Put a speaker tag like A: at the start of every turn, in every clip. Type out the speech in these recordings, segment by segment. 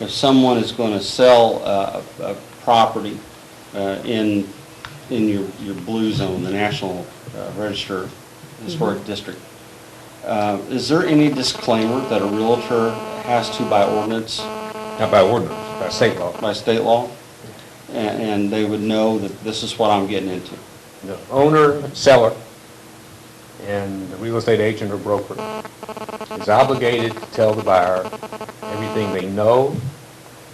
A: if someone is going to sell uh, a a property uh, in, in your, your blue zone, the National uh, Register Historic District, uh, is there any disclaimer that a Realtor has to by ordinance,
B: Not by ordinance, by state law.
A: by state law? A- And they would know that this is what I'm getting into?
B: The owner, seller, and the real estate agent or broker is obligated to tell the buyer everything they know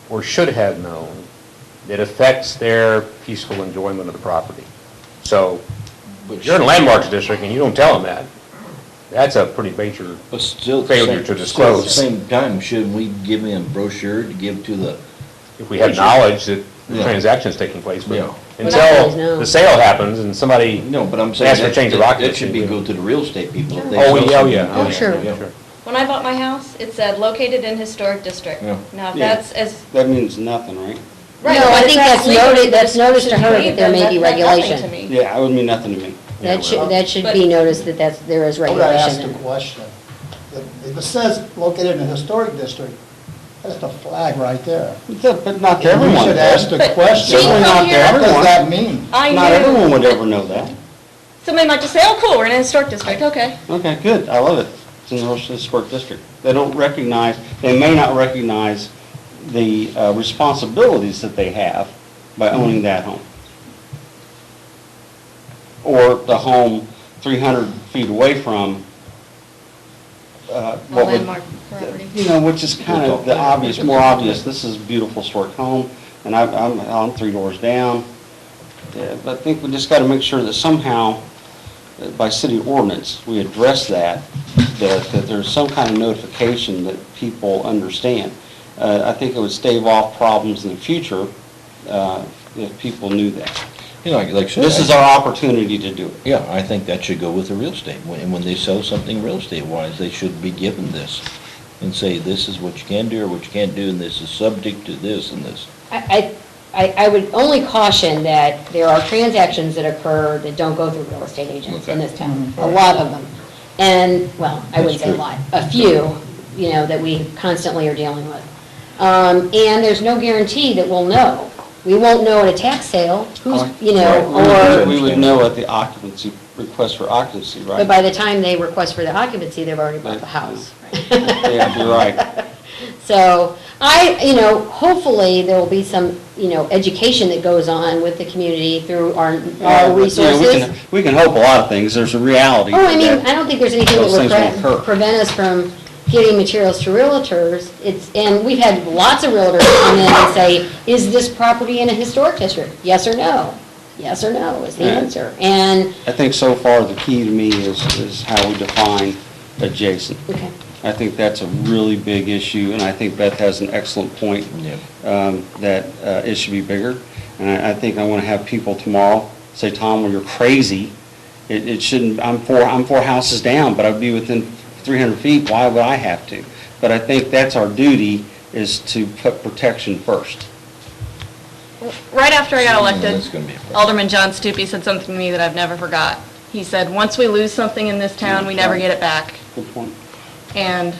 B: or should have known that affects their peaceful enjoyment of the property. So, if you're in a landmarks district and you don't tell them that, that's a pretty major,
C: But still. at the
B: Failure
C: same-
B: to
C: still at the
B: disclose.
C: Same time, shouldn't we give them a brochure to give to the,
B: if we have knowledge that the
C: Yeah.
B: transaction's taking place,
C: Yeah.
B: but
D: We're not always
B: until
D: known.
B: the sale happens and somebody.
C: no, but I'm saying.
B: Ask for
C: that-
B: change of
C: that- That
B: occupancy,
C: should be
B: yeah.
C: go to the real estate people. if they
B: Oh,
C: sell
B: yeah, oh, yeah.
C: something.
D: Oh, sure.
C: Yeah.
E: When I bought my house, it said located in historic district.
C: Yeah.
E: Now, if
A: Yeah.
E: that's as.
A: That means nothing, right?
E: right,
D: No, I
E: but if
D: think that's
E: legal
D: noted- that's noticed to her that
E: read,
D: there
E: then
D: may be
E: that meant nothing
D: regulation.
E: to me.
A: Yeah, it would mean nothing to me.
B: Yeah,
D: That should,
B: well-
D: that should
E: But-
D: be noticed that that's, there is
F: I would have asked
D: regulation.
F: a
D: in it.
F: question. If it says located in a historic district, that's the flag right there.
A: But not to
F: You
A: everyone.
F: should ask the
E: But
F: question,
E: she
A: Certainly not
E: come
A: to
E: here-
F: what does that
A: everyone.
F: mean?
E: I
A: Not everyone would
E: knew.
A: ever know that.
E: Somebody might just say, oh, cool, we're in a historic district, okay.
A: Okay, good, I love it. It's in the Rochester Historic District. They don't recognize, they may not recognize the uh, responsibilities that they have by owning that home. Or the home 300 feet away from, uh,
E: A
A: what would...
E: landmark property.
A: You know, which is kind of the obvious, more obvious, this is a beautiful historic home, and I'm, I'm, I'm three doors down. Yeah, But I think we just gotta make sure that somehow, uh, by city ordinance, we address that, that, that there's some kind of notification that people understand. Uh, I think it would stave off problems in the future, uh, if people knew that.
C: You know, like- like I said.
A: This
C: I-
A: is our opportunity to do it.
C: Yeah, I think that should go with the real estate. When- And when they sell something real estate-wise, they should be given this and say, this is what you can do or what you can't do, and this is subject to this and this.
D: I, I, I would only caution that there are transactions that occur that don't go through real estate agents in
C: Okay.
D: this town,
C: Mhm.
D: a lot of them. And, well, I wouldn't say a
C: That's true.
D: lot, a few, you know, that we constantly are dealing with. Um, and there's no guarantee that we'll know. We won't know at a tax sale, who's, you know,
A: Right,
D: or,
A: We would- we would know at the occupancy, request for occupancy, right?
D: but by the time they request for the occupancy, they've already bought the house.
A: Yeah, you're right.
D: So I, you know, hopefully there will be some, you know, education that goes on with the community through our,
A: Yeah,
D: our
A: we- yeah, we can-
D: resources.
A: We can hope a lot of things, there's a reality.
D: Oh, I mean,
A: that-
D: I don't think there's anything that
A: Those
D: would
A: things won't
D: pre-
A: hurt.
D: prevent us from getting materials to realtors. It's, and we've had lots of realtors come in and say, is this property in a historic district? Yes or no? Yes or no is the
A: Right.
D: answer. And,
A: I think so far, the key to me is, is how we define adjacent.
D: okay.
A: I think that's a really big issue, and I think Beth has an excellent point,
C: Yeah.
A: um, that uh, it should be bigger. And I, I think I want to have people tomorrow say, Tom, well, you're crazy. It, it shouldn't, I'm four, I'm four houses down, but I'd be within 300 feet, why would I have to? But I think that's our duty, is to put protection first.
E: Right after I got
C: Mm,
E: elected,
C: that's gonna be a problem.
E: Alderman John Stupi said something to me that I've never forgot. He said, once we lose something in this town, we never get it back.
A: Good point.
E: And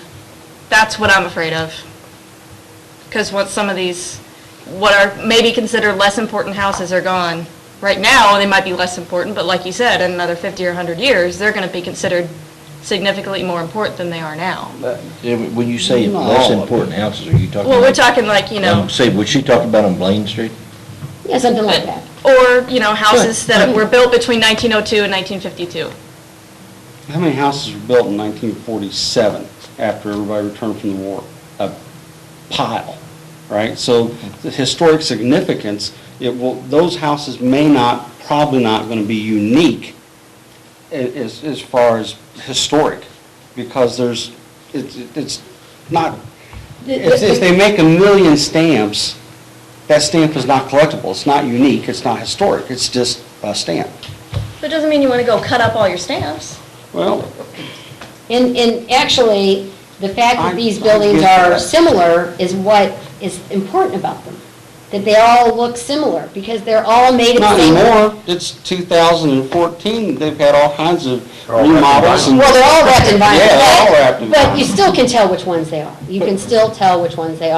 E: that's what I'm afraid of. Because once some of these, what are maybe considered less important houses are gone, right now, they might be less important, but like you said, in another 50 or 100 years, they're going to be considered significantly more important than they are now.
C: Yeah, but When you say
A: Not
C: less
A: all of
C: important houses, are you talking?
E: Well, we're
C: about-
E: talking like, you know,
C: Um, Say, was she talking about on Blaine Street?
D: Yeah, something like that.
E: or, you know, houses that were built between 1902 and 1952.
A: How many houses were built in 1947 after everybody returned from the war? A pile, right? So the historic significance, it will, those houses may not, probably not going to be unique a- as, as far as historic, because there's, it's, it's not, if, if they make a million stamps, that stamp is not collectible, it's not unique, it's not historic, it's just a stamp.
E: That doesn't mean you want to go cut up all your stamps.
A: Well,
D: And, and actually, the fact that these
A: I- I
D: buildings
A: get
D: are
A: that.
D: similar is what is important about them. That they all look similar, because they're all made of the
A: Not
D: same.
A: anymore, it's 2014, they've had all kinds of
B: They're all wrapped in
A: remodels and...
D: Well, they're all wrapped in vinyl.
A: Yeah, they're all
D: but-
A: wrapped in
D: But you
A: vinyl.
D: still can tell which ones they are. You can still tell which ones they are.